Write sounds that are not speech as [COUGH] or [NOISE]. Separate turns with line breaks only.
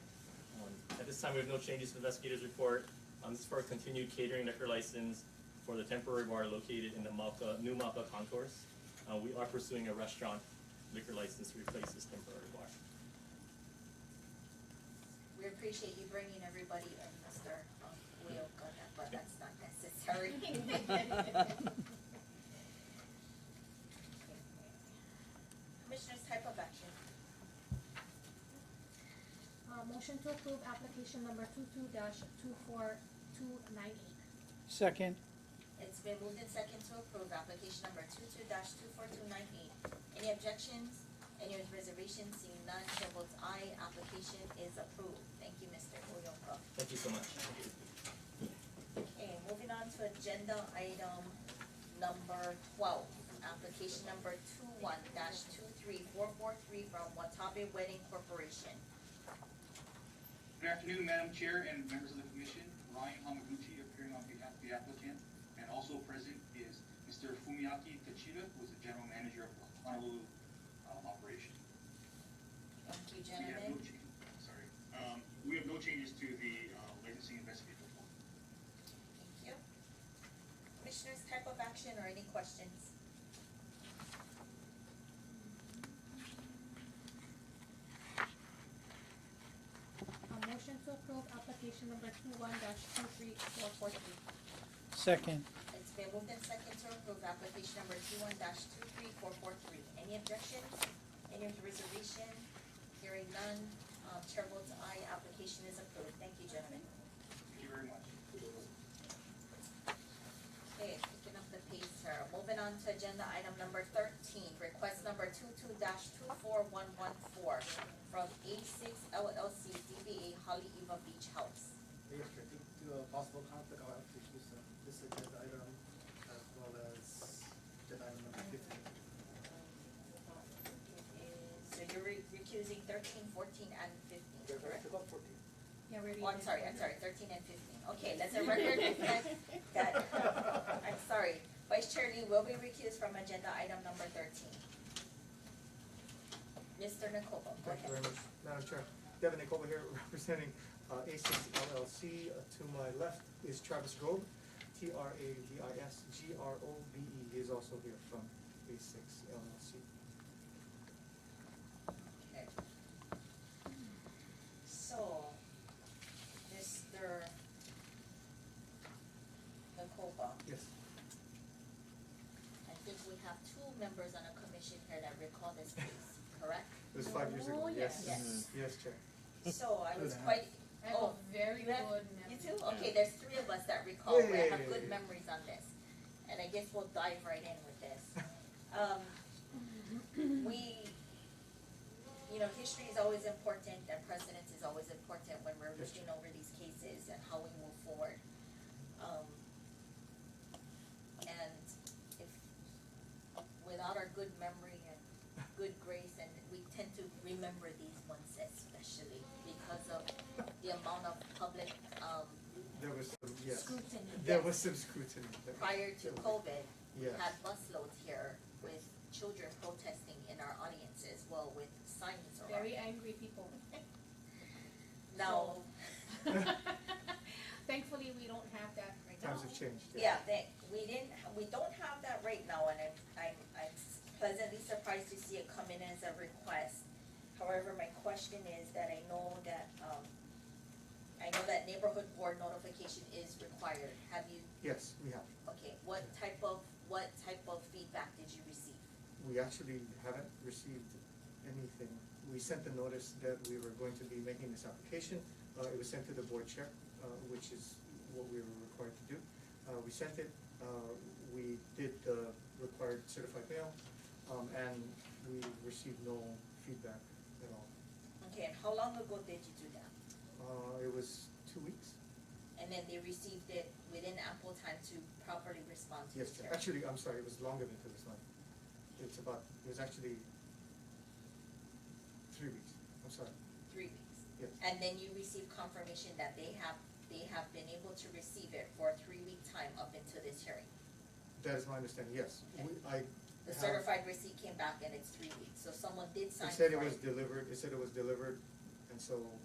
Um, this time, we have no changes to the investigator's report. Um, This is for a continued catering liquor license for the temporary bar located in the Malpa, new Malpa concourse. Uh, We are pursuing a restaurant liquor license to replace this temporary bar.
We appreciate you bringing everybody in, um, Mr. Leoka, but that's not necessary. Commissioners, type of action.
Uh, motion to approve application number two-two dash two-four-two-nine-eight.
Second,
It's been moved in second to approve application number two-two dash two-four-two-nine-eight. Any objections? Any reservations? Seeing none, chair votes aye, application is approved. Thank you, Mr. Uyoka.
Thank you so much.
Okay, moving on to agenda item number twelve, application number two one dash two three four four three from Watabe Wedding Corporation.
Good afternoon, Madam Chair and members of the commission. Ryan Hamaguchi appearing on behalf of the applicant, and also present is Mr. Fumiaki Tachida, who is the general manager of the Honolulu um, operation.
Thank you,
We have no
gentlemen.
change, sorry, Um, we have no changes to the uh, licensing investigator report.
Thank you. Commissioners, type of action or any questions?
Uh, motion to approve application number two-one dash two-three-four-four-three.
second,
It's been moved and second to approve application number two one dash two three four four three. Any objections? Any reservation? Hearing none, um, chair votes aye, application is approved. Thank you, gentlemen.
Thank you very much.
Okay, picking up the pace here. Moving on to agenda item number thirteen, request number two-two dash two-four-one-one-four from A6 LLC DBA Holly Eva Beach House.
Mayor, Chair, due to a uh, possible conflict, I'll have to choose uh, this agenda item as well as agenda item number fifteen.
So you're re- recusing thirteen, fourteen, and fifteen, correct?
fourteen.
Yeah, we're reading.
Oh, I'm sorry, I'm sorry, thirteen and fifteen. Okay, let [LAUGHS] the record reflect that,
[LAUGHS]
I'm sorry. Vice Chair Lee will be recused from agenda item number thirteen. Mr. Nakoba, go
Thank you
ahead.
very much, Madam Chair. Devin Nicola here [LAUGHS] representing uh, A6 LLC. Uh, To my left is Travis Grobe, T-R-A-V-I-S-G-R-O-B-E. E. He is also here from A6 LLC.
Okay. So, Mr. Nakoba,
Yes.
I think we have two members on a commission here that recall this case, correct?
It was five years ago.
Oh,
Yes. Mm-hmm.
yes.
Yes, Chair.
So I was
Good.
quite,
I have
Oh,
a very
you
good
have-
memory.
you too? Okay, there's three of us that recall,
Yeah,
we
yeah,
have
yeah,
good
yeah.
memories on this. And I guess we'll dive right in with this. Um, we, you know, history is always important and precedence is always important when we're
Yes.
looking over these cases and how we move forward. Um, and if, without our good memory and good grace, and we tend to remember these ones especially because of the amount of public, um,
There was some, yes.
scrutiny
There
that
was some scrutiny. There-
prior to
there was-
COVID
Yes.
had busloads here with children protesting in our audience as well with signs around.
Very angry
[LAUGHS]
[LAUGHS]
people.
Now,
Thankfully, we don't have that right now.
Times have changed.
yeah, that, we didn't, we don't have that right now, and I'm, I'm, I'm pleasantly surprised to see it come in as a request. However, my question is that I know that, um, I know that neighborhood board notification is required. Have you,
Yes, we have.
okay, what type of, what type of feedback did you receive?
We actually haven't received anything. We sent the notice that we were going to be making this application. Uh, it was sent to the board chair, uh, which is what we were required to do. Uh, we sent it, uh, we did the required certified mail, um, and we received no feedback at all.
Okay, and how long ago did you do that?
Uh, it was two weeks?
And then they received it within ample time to properly respond to the
Yes, Chair.
chair.
actually, I'm sorry, it was longer than two weeks, not, it's about, it was actually three weeks, I'm sorry,
Three weeks.
yes.
And then you receive confirmation that they have, they have been able to receive it for a three-week time up until this hearing.
That is my understanding, yes.
Okay.
We- I
The
have,
certified receipt came back and it's three weeks, so someone did sign
it
for it.
said it was delivered, it said it was delivered, and so